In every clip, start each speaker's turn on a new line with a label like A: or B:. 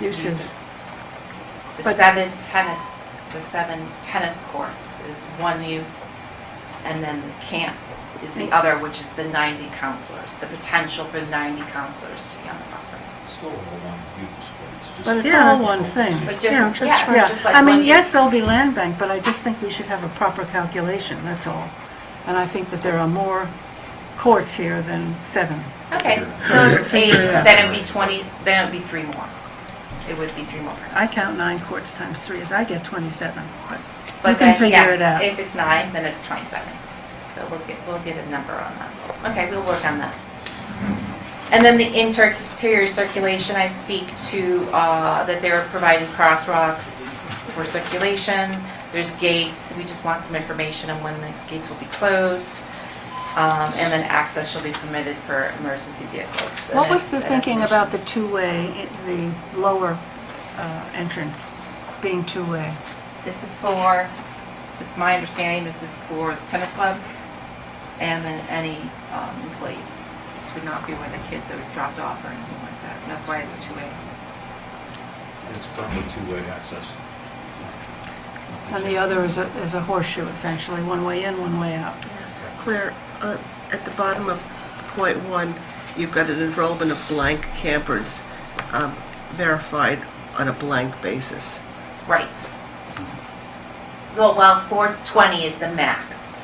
A: uses.
B: The
A: But-
B: seven tennis, the seven tennis courts is one use, and then the camp is the other, which is the 90 counselors, the potential for 90 counselors to be on the property.
C: Still all one use, but it's just.
A: But it's
D: Yeah,
A: all
D: it's-
A: one thing.
B: But
D: Yeah,
B: different,
D: just
B: yes,
D: try-
B: it's
A: Yeah,
B: just like
A: I
B: one
A: mean, yes,
B: use.
A: there'll be land bank, but I just think we should have a proper calculation, that's all. And I think that there are more courts here than seven.
B: Okay, so it's eight,
A: Figure it out.
B: then it'd be 20, then it'd be three more. It would be three more.
A: I count nine courts times three, as I get 27, but
B: But
A: you can
B: then,
A: figure
B: yes,
A: it out.
B: If it's nine, then it's 27. So we'll get, we'll get a number on that. Okay, we'll work on that. And then the inter- interior circulation, I speak to, uh, that they're providing crosswalks for circulation. There's gates, we just want some information on when the gates will be closed. Um, And then access shall be permitted for emergency vehicles. And
A: What was
B: that-
A: the
B: that
A: thinking
B: information.
A: about the two-way, i- the lower uh, entrance being two-way?
B: This is for, it's my understanding, this is for the tennis club and then any um, employees. This would not be where the kids are dropped off or anything like that. And That's why it's two ways.
C: It's probably two-way access.
A: And the other is a is a horseshoe, essentially, one way in, one way out.
D: Claire, uh, at the bottom of point one, you've got an enrollment of blank campers um, verified on a blank basis.
B: Right. Well, well, 420 is the max.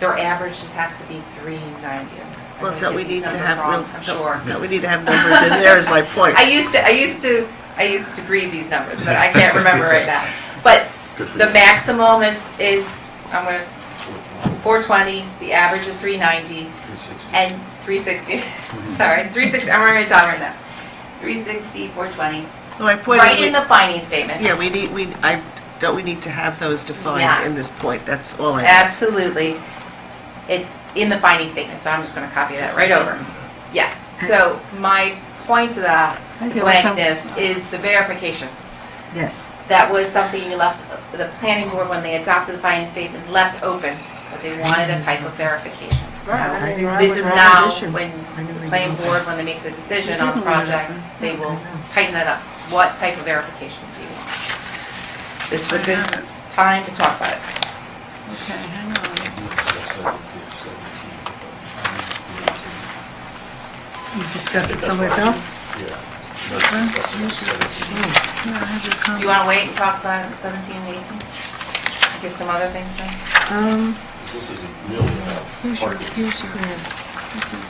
B: Their average just has to be 390. I'm
D: Well,
B: gonna
D: don't we
B: get these
D: need to
B: numbers
D: have,
B: wrong,
D: real-
B: I'm sure.
D: don't- don't we need to have numbers in there is my point.
B: I used to, I used to, I used to read these numbers, but I can't remember right now. But the maximum is, is, I'm gonna 420, the average is 390, and 360, sorry, 360, I'm already done right now. 360, 420,
D: No, My point is,
B: right in
D: we-
B: the finding statement.
D: yeah, we need, we, I, don't we need to have those defined
B: Yes.
D: in this point? That's all I.
B: Absolutely. It's in the finding statement, so I'm just gonna copy that right over. Yes, so my point to that
A: I feel some-
B: blankness is the verification.
A: Yes.
B: That was something you left, the planning board, when they adopted the finding statement, left open, but they wanted a type of verification.
A: Right. I mean,
B: This is
A: Robert's
B: now,
A: issue.
B: when
E: I knew they
B: planning
E: were-
B: board, when they make the decision
A: They
B: on
A: didn't
B: projects,
A: verify.
B: they will
E: Okay.
B: tighten that up. What type of verification do you want? This is a good time to talk about it.
A: Okay, hang on.
E: You discuss it someplace else?
A: Yeah, I have your
B: Do
E: Um,
A: comment.
B: you want to wait and talk about 17 and 18? Get some other things done?
E: Um,
C: This isn't really about
E: here's your,
C: parking.
E: here's your, this is.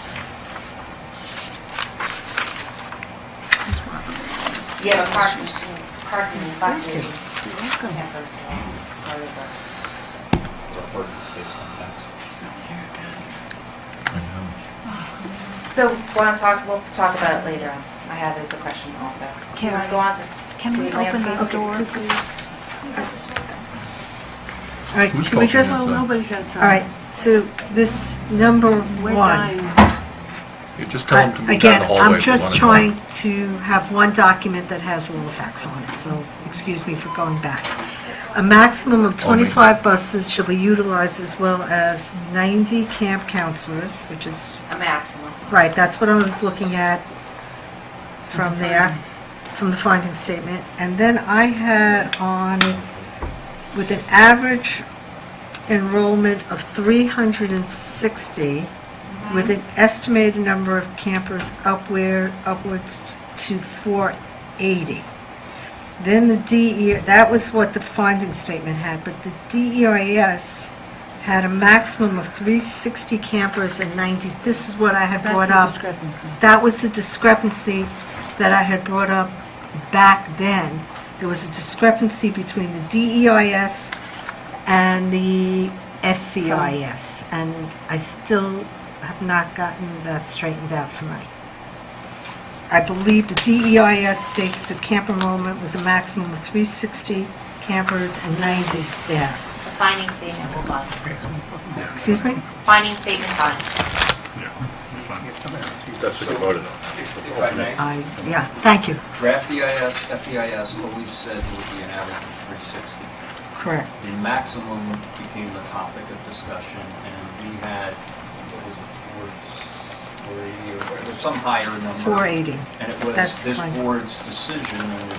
E: Here's Robert.
B: Yeah, but parking, parking and busing.
E: You're welcome.
B: Yeah, those are all part of the-
C: Our parking space on that.
E: It's not there, guys.
B: So, want to talk, we'll talk about it later. on. I have is a question also.
E: Can
B: Want to
E: I-
B: go on to s-
E: Can
B: to
E: we open the
B: landscape?
E: door, please?
F: All right,
G: Who's
F: can we
G: talking
F: just,
G: now?
A: Well,
F: all
A: nobody's outside.
F: right, so this number
A: We're
F: one.
A: dying.
G: You just tell them to
F: I-
G: move down
F: Again,
G: the hallway.
F: I'm
G: if they
F: just
G: wanna go.
F: trying to have one document that has all the facts on it, so excuse me for going back. A maximum of 25 buses shall be utilized as well as 90 camp counselors, which is
B: A maximum.
F: Right, that's what I was looking at from there, from the finding statement. And then I had on, with an average enrollment of 360, with an estimated number of campers upward, upwards to 480. Then the DE, that was what the finding statement had, but the DEIS had a maximum of 360 campers and 90, this is what I had
A: That's
F: brought
A: the
F: up.
A: discrepancy.
F: That was the discrepancy that I had brought up back then. There was a discrepancy between the DEIS and the FEIS, and I still have not gotten that straightened out for me. I believe the DEIS states that camp enrollment was a maximum of 360 campers and 90
B: The
F: staff.
B: finding statement will fund.
F: Excuse me?
B: Finding statement funds.
G: That's what you voted on.
H: If if I may,
F: I, yeah, thank you.
H: draft E EIS, FEIS always said would be an average of 360.
F: Correct.
H: The maximum became the topic of discussion, and we had, what was it, 480 or it was some higher number.
F: 480.
H: And it was
F: That's
H: this
F: fine.
H: board's decision, and it